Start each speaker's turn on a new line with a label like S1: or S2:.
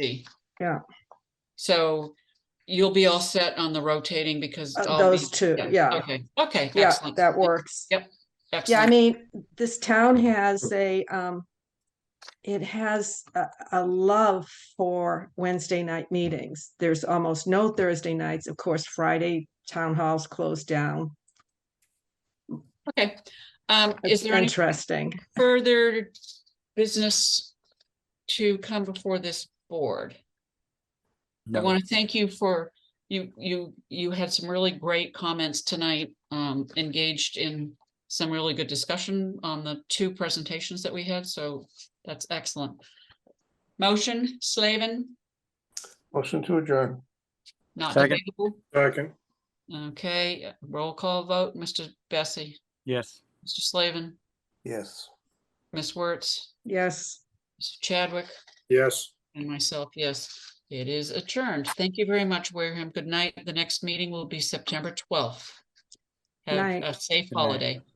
S1: see.
S2: Yeah.
S1: So you'll be all set on the rotating because.
S2: Uh,
S1: all
S2: those
S1: these-
S2: two, yeah.
S1: Okay, okay.
S2: Yeah,
S1: excellent.
S2: that works. Yeah, I
S1: Excellent.
S2: mean, this town has a, um, it has a, a love for Wednesday night meetings. There's almost no Thursday nights. Of course, Friday town halls closed down.
S1: Okay. Um, is
S2: It's
S1: there any
S2: interesting.
S1: further business to come before this board? I
S3: No,
S1: want to thank you for, you, you, you had some really great comments tonight, um, engaged in some really good discussion on the two presentations that we had, so that's excellent. Motion, Slavin,
S4: Motion to adjourn.
S1: not
S3: Second.
S1: debatable.
S4: Second.
S1: Okay, uh, roll call vote, Mr. Bessie,
S3: yes.
S1: Mr. Slavin,
S4: Yes.
S1: Ms. Wertz,
S2: Yes.
S1: Mr. Chadwick,
S4: Yes.
S1: and myself, yes. It is adjourned. Thank you very much, Wareham. Good night. The next meeting will be September twelfth. Have
S2: Night.
S1: a safe
S3: Good night.
S1: holiday.